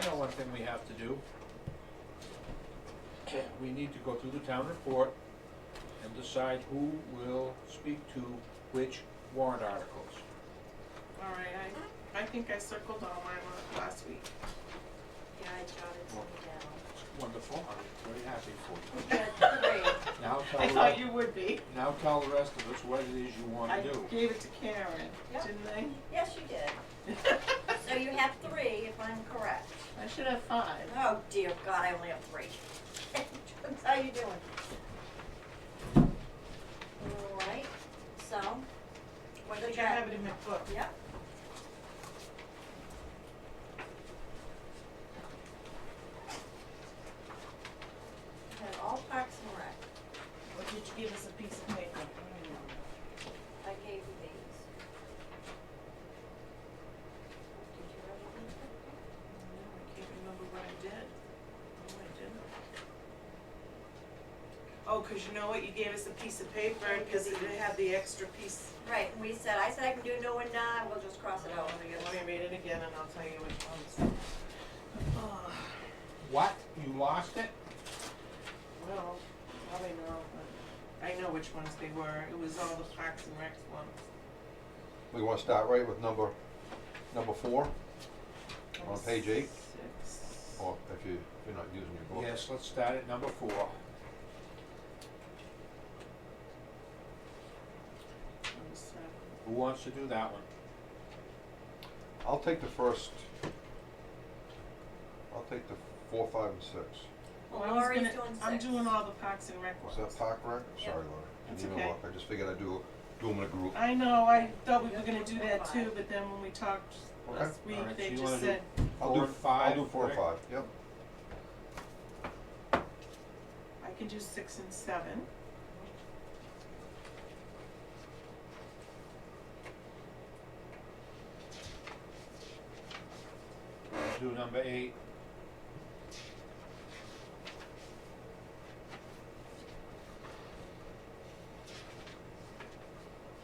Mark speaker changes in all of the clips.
Speaker 1: something we have to do. We need to go through the town report and decide who will speak to which warrant articles.
Speaker 2: Alright, I, I think I circled all mine la- last week.
Speaker 3: Yeah, I jotted some
Speaker 1: Wonderful, I'm very happy for
Speaker 3: down. Yeah, great.
Speaker 1: you. Now
Speaker 2: I
Speaker 1: tell,
Speaker 2: thought
Speaker 1: the-
Speaker 2: you would be.
Speaker 1: now tell the rest of us what it is you
Speaker 2: I
Speaker 1: wanna do.
Speaker 2: gave it to Karen,
Speaker 3: Yep.
Speaker 2: didn't I?
Speaker 3: Yes, you did. So you have three, if I'm correct.
Speaker 2: I should have five.
Speaker 3: Oh dear God, I only have three. How you doing? All right, so, what
Speaker 2: I
Speaker 3: do you
Speaker 2: think I have
Speaker 3: got?
Speaker 2: it in my book.
Speaker 3: Yep. We have all Parks and Rec.
Speaker 2: Or did you give us a piece of paper? I don't know.
Speaker 3: I gave you these. Did you have anything?
Speaker 2: No, I can't remember what I did. No, I didn't. Oh, 'cause you know what, you gave us a piece of paper, cause it had the extra piece.
Speaker 3: Right, and we said, I said I can do no and nah, we'll just cross it out.
Speaker 2: Let me- let me read it again and I'll tell you which ones. Oh,
Speaker 1: What, you lost it?
Speaker 2: well, probably no, but I know which ones they were, it was all the Parks and Recs ones.
Speaker 4: We wanna start right with number, number four, On page eight? Oh.
Speaker 2: Six.
Speaker 4: or if you, if you're not using your book.
Speaker 1: Yes, let's start at number four.
Speaker 2: Number seven.
Speaker 1: Who wants to do that one?
Speaker 4: I'll take the first, I'll take the four, five, and six.
Speaker 2: Well,
Speaker 3: Well,
Speaker 2: I was
Speaker 3: Lori's
Speaker 2: gonna-
Speaker 3: doing
Speaker 2: I'm
Speaker 3: six.
Speaker 2: doing all the Parks and Rec
Speaker 4: Was
Speaker 2: ones.
Speaker 4: that Park Rec?
Speaker 3: Yeah.
Speaker 4: Sorry, Laura.
Speaker 2: That's
Speaker 4: Didn't even
Speaker 2: okay.
Speaker 4: look. I just figured I'd do, do them in a group.
Speaker 2: I know, I thought we were gonna do that too, but then when we talked
Speaker 4: Okay.
Speaker 2: last
Speaker 1: Alright,
Speaker 2: week,
Speaker 1: so
Speaker 2: they
Speaker 1: you
Speaker 2: just
Speaker 1: wanna do-
Speaker 2: said,
Speaker 4: I'll
Speaker 1: Four
Speaker 4: do,
Speaker 1: and
Speaker 4: f-
Speaker 1: five,
Speaker 4: I'll do four and
Speaker 1: correct?
Speaker 4: five, yep.
Speaker 2: I can do six and seven.
Speaker 1: Do number eight.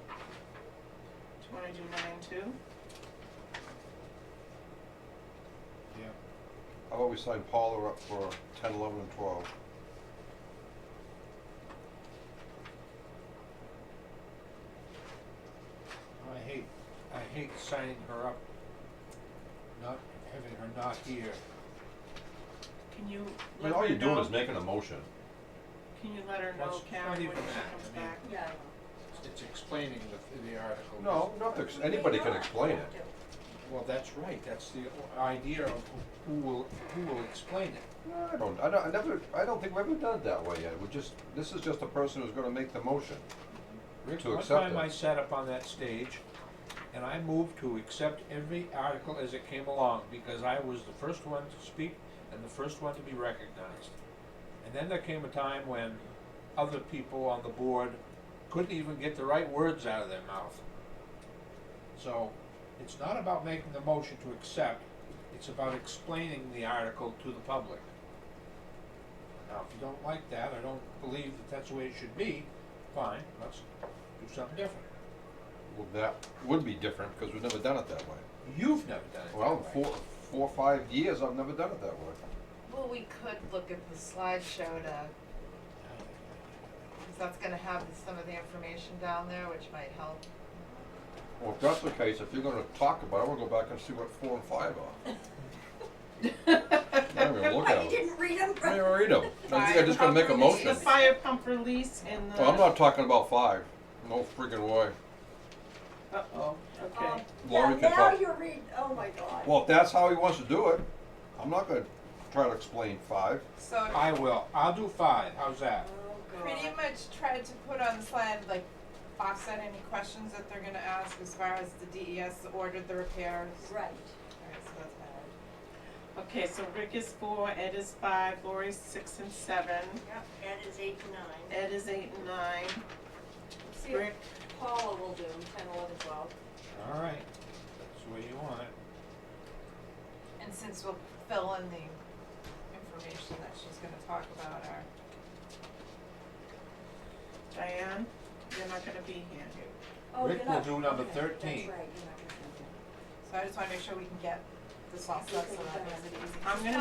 Speaker 2: Do you wanna do nine too?
Speaker 1: Yeah.
Speaker 4: How about we sign Paula up for ten, eleven, and twelve?
Speaker 1: Oh, I hate, I hate signing her up, not having her not here.
Speaker 2: Can you let
Speaker 4: I mean,
Speaker 2: her know?
Speaker 4: all you're doing is making a motion.
Speaker 2: Can you let her know,
Speaker 1: That's
Speaker 2: Karen,
Speaker 1: not
Speaker 2: when she
Speaker 1: even that,
Speaker 2: comes
Speaker 1: I mean-
Speaker 2: back?
Speaker 3: Yeah.
Speaker 1: It's explaining the, the article.
Speaker 4: No, not to, ex- anybody can explain it.
Speaker 1: Well, that's right, that's the idea of who will, who will explain it.
Speaker 4: No, I don't, I don't, I never, I don't think we've ever done it that way yet. We're just, this is just a person who's gonna make the motion.
Speaker 1: Rick,
Speaker 4: To accept
Speaker 1: One time
Speaker 4: it.
Speaker 1: I sat up on that stage and I moved to accept every article as it came along because I was the first one to speak and the first one to be recognized. And then there came a time when other people on the board couldn't even get the right words out of their mouth. So it's not about making the motion to accept, it's about explaining the article to the public. Now, if you don't like that, I don't believe that that's the way it should be, fine, let's do something different.
Speaker 4: Well, that would be different, because we've never done it that way.
Speaker 1: You've never done it that
Speaker 4: Well,
Speaker 1: way.
Speaker 4: four, four, five years, I've never done it that way.
Speaker 5: Well, we could look at the slideshow to, because that's gonna have some of the information down there, which might help.
Speaker 4: Well, if that's the case, if you're gonna talk about it, we'll go back and see what four and five are. I'm gonna look
Speaker 3: Why,
Speaker 4: at
Speaker 3: you
Speaker 4: them.
Speaker 3: didn't read them?
Speaker 4: I didn't read them. I think I just gonna make a motion.
Speaker 2: The fire pump release and the.
Speaker 4: Well, I'm not talking about five. No freaking way.
Speaker 2: Uh-oh, okay.
Speaker 4: Lori
Speaker 3: um, Now,
Speaker 4: can
Speaker 3: now
Speaker 4: talk.
Speaker 3: you're reading, oh my God.
Speaker 4: Well, if that's how he wants to do it, I'm not gonna try to explain five.
Speaker 5: So
Speaker 1: I will, I'll do five, how's
Speaker 3: Oh
Speaker 1: that?
Speaker 3: God.
Speaker 5: pretty much tried to put on the slide, like, offset any questions that they're gonna ask as far as the DES ordered the repairs.
Speaker 3: Right.
Speaker 5: Alright, so that's better.
Speaker 2: Okay, so Rick is four, Ed is five, Lori's six and seven,
Speaker 3: Yep, and it's eight to nine.
Speaker 2: Ed is eight and nine,
Speaker 3: See
Speaker 2: Rick,
Speaker 3: what Paula will do, ten, eleven, twelve.
Speaker 1: All right, that's the way you want it.
Speaker 5: And since we'll fill in the information that she's gonna talk about, our
Speaker 2: Diane, you're not gonna be here.
Speaker 3: Oh,
Speaker 1: Rick
Speaker 3: you're
Speaker 1: will
Speaker 3: not-
Speaker 1: do number
Speaker 3: okay,
Speaker 1: 13.
Speaker 3: That's right, you're not gonna do that.
Speaker 5: So I just wanna make sure we can get this all set so that makes it easy.
Speaker 2: I'm gonna